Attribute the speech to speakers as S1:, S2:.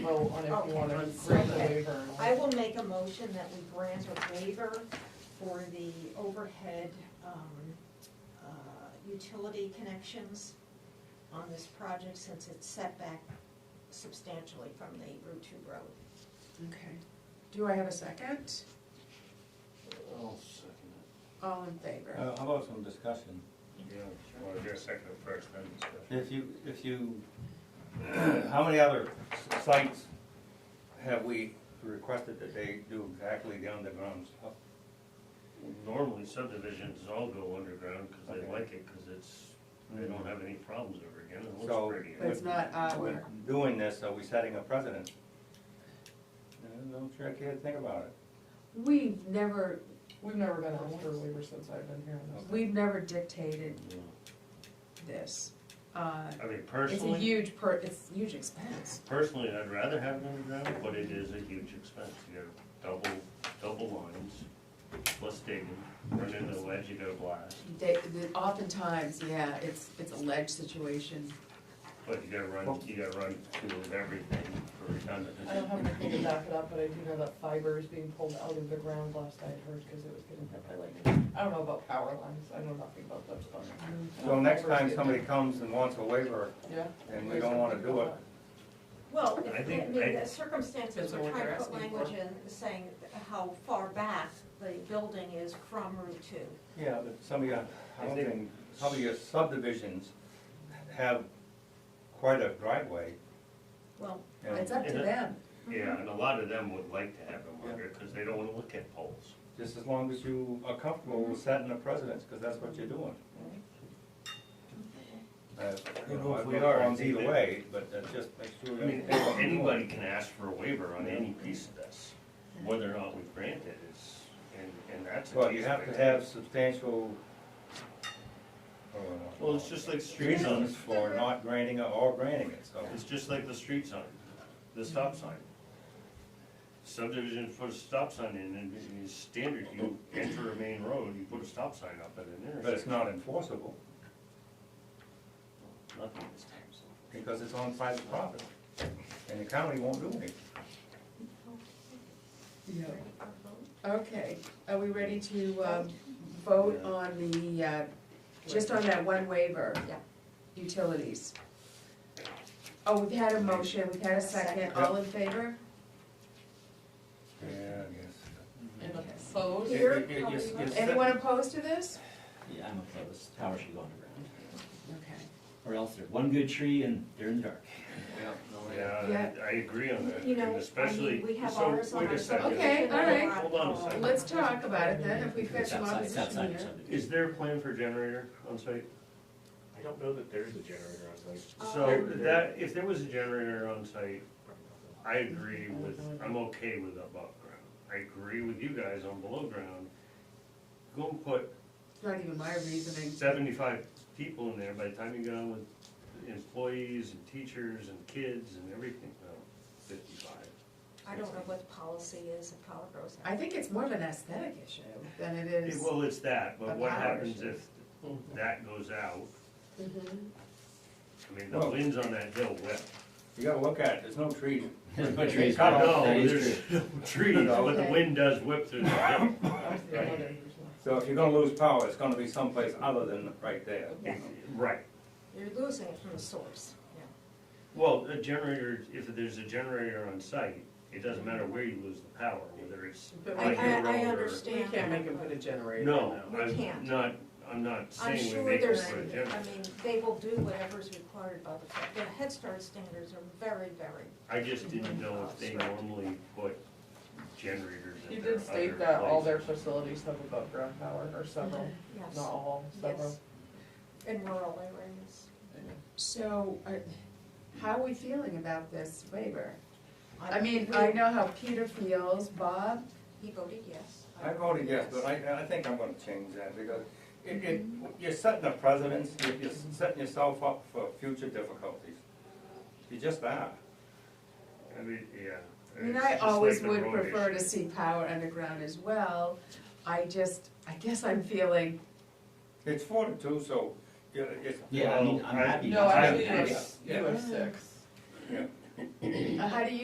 S1: vote on if you want
S2: Okay,
S1: to grant the
S2: okay.
S1: waiver.
S2: I will make a motion that we grant a waiver for the overhead um, uh, utility connections on this project since it's set back substantially from the Route Two road.
S3: Okay. Do I have a second?
S4: I'll second
S3: All in favor?
S5: Uh, How about some discussion?
S6: Yeah, well, I guess second first, then discussion.
S5: If you, if you, how many other s- sites have we requested that they do exactly the underground stuff?
S6: Normally subdivisions all go underground because they
S5: Okay.
S6: like it, because it's, they don't have any problems ever again, it
S5: So-
S6: looks pretty.
S3: But it's not our,
S5: With Doing this, are we setting a precedent? Uh, I'm sure I can't think about it.
S3: we've never,
S1: We've never been asked for a waiver since I've been here. in this.
S3: we've never dictated this. Uh,
S6: I mean,
S3: It's a
S6: personally,
S3: huge per, it's a huge expense.
S6: personally, I'd rather have it underground, but it is a huge expense, you gotta double, double lines, plus digging, run into the ledge, you gotta blast,
S3: They, the- oftentimes, yeah, it's, it's a ledge situation.
S6: but you gotta run, you gotta run through everything for redundancy.
S1: I don't have anything to back it up, but I do know that fiber is being pulled out of the ground last I heard because it was getting hit by lightning. I don't know about power lines, I know nothing about that stuff.
S3: Mm-hmm.
S5: So Mm-hmm. next time somebody comes and wants a waiver
S1: Yeah.
S5: and we don't wanna do it,
S2: Well,
S6: I
S2: if- I
S6: think-
S2: mean,
S6: I-
S2: the circumstances,
S3: That's
S2: we're
S3: what
S2: trying
S3: they're
S2: to put
S3: asking for.
S2: language in saying how far back the building is from Route Two.
S5: yeah, but some of your, I don't
S6: I think-
S5: think, some of your subdivisions have quite a driveway.
S2: Well,
S5: and-
S3: It's up to them.
S6: Yeah, and a lot of them would like to have them under, because they don't wanna look at poles.
S5: Just as long as you are comfortable with setting the precedence, because that's what you're doing. Uh, You know, if we are, it's either way, but uh, just make sure.
S6: I mean,
S5: that-
S6: anybody can ask for a waiver on any piece of this, whether or not we grant it is, and, and that's. a
S5: Well, you
S6: case
S5: have
S6: by
S5: to
S6: case.
S5: have substantial. uh,
S6: Well, it's just like street
S5: Reasons
S6: signs,
S5: for not granting it or granting it, so.
S6: it's just like the street sign, the stop sign. Subdivision put a stop sign in, and it's standard, you enter a main road, you put a stop sign up at an intersection.
S5: But it's not enforceable,
S6: Nothing this time, so.
S5: because it's on private property, and the county won't do anything.
S3: Okay, are we ready to, um, vote on the, uh, just on that one waiver?
S2: Yeah.
S3: Utilities. Oh, we've had a motion, we've had a second, all in favor?
S5: Yeah, I guess.
S1: And
S3: Okay.
S1: opposed,
S2: Here,
S7: It- it- it-
S2: probably
S7: yes-
S2: not.
S7: yes,
S3: Anyone opposed to this?
S7: Yeah, I'm opposed, tower should go underground,
S3: Okay.
S7: or else they're one good tree and they're in the dark.
S4: Yeah, no, yeah.
S6: Yeah,
S3: Yeah.
S6: I- I agree on that,
S2: You know, I
S6: and
S2: mean,
S6: especially,
S2: we have
S6: so,
S2: ours on
S6: wait
S2: our
S6: a second.
S3: Okay, all right.
S6: Hold on a second.
S3: Let's talk about it then, if we've got
S7: It's
S3: some
S7: outside, it's
S3: opposition
S7: outside
S3: here.
S7: of subdivision.
S6: Is there a plan for a generator on site?
S8: I don't know that there is a generator on site.
S6: So
S8: Um,
S6: that, if there was a generator on site, I agree with, I'm okay with above ground. I agree with you guys on below ground. Go and put
S3: It's not even my reasoning.
S6: seventy-five people in there by the time you get on with employees and teachers and kids and everything, no, fifty-five.
S2: I don't know what the policy is if power goes out.
S3: I think it's more of an aesthetic issue than it
S6: It-
S3: is.
S6: Well, it's that,
S3: A
S6: but what
S3: power
S6: happens
S3: issue.
S6: if that goes out?
S3: Mhm.
S6: I mean, the
S5: Well-
S6: winds on that hill whip.
S5: You gotta look at it, there's no trees.
S7: There's no trees.
S5: Cut off.
S7: that
S6: No,
S7: is
S6: there's trees, but the wind does whip through the hill.
S1: I was the other person.
S5: So if you're gonna lose power, it's gonna be someplace other than right there.
S6: Right.
S2: You're losing it from the source, yeah.
S6: Well, a generator, if there's a generator on site, it doesn't matter where you lose the power, whether it's
S3: But
S2: I,
S6: on your
S2: I, I
S6: road or-
S2: understand.
S1: We can't make him put a generator.
S6: No,
S1: in
S2: We can't.
S6: I'm not, I'm not
S2: I'm
S6: saying we
S2: sure
S6: make it
S2: there's,
S6: for a generator.
S2: I mean, they will do whatever's required by the, fact- the Head Start standards are very, very,
S6: I just didn't know if they normally put generators
S1: that.
S6: in
S1: You
S6: their
S1: did state
S6: other
S1: that all their
S6: places.
S1: facilities have above ground power, or several, not
S2: yes,
S1: all, several.
S2: yes, in rural areas.
S3: So, are- how are we feeling about this waiver?
S2: I-
S3: I mean,
S2: we-
S3: I know how Peter feels, Bob,
S2: He voted yes.
S5: I voted yes, but I, I think I'm gonna change that, because it, it, you're setting a precedence, you're, you're setting yourself up for future difficulties. You just are.
S6: I mean, yeah.
S3: I mean,
S6: it's
S3: I
S6: just
S3: always
S6: like the road
S3: would prefer to
S6: issue.
S3: see power underground as well. I just, I guess I'm feeling,
S5: It's forty-two, so, you know, it's.
S7: Yeah, I mean, I'm happy.
S1: No,
S7: I'm
S1: actually,
S7: happy.
S1: you have, you have six.
S3: uh, how do you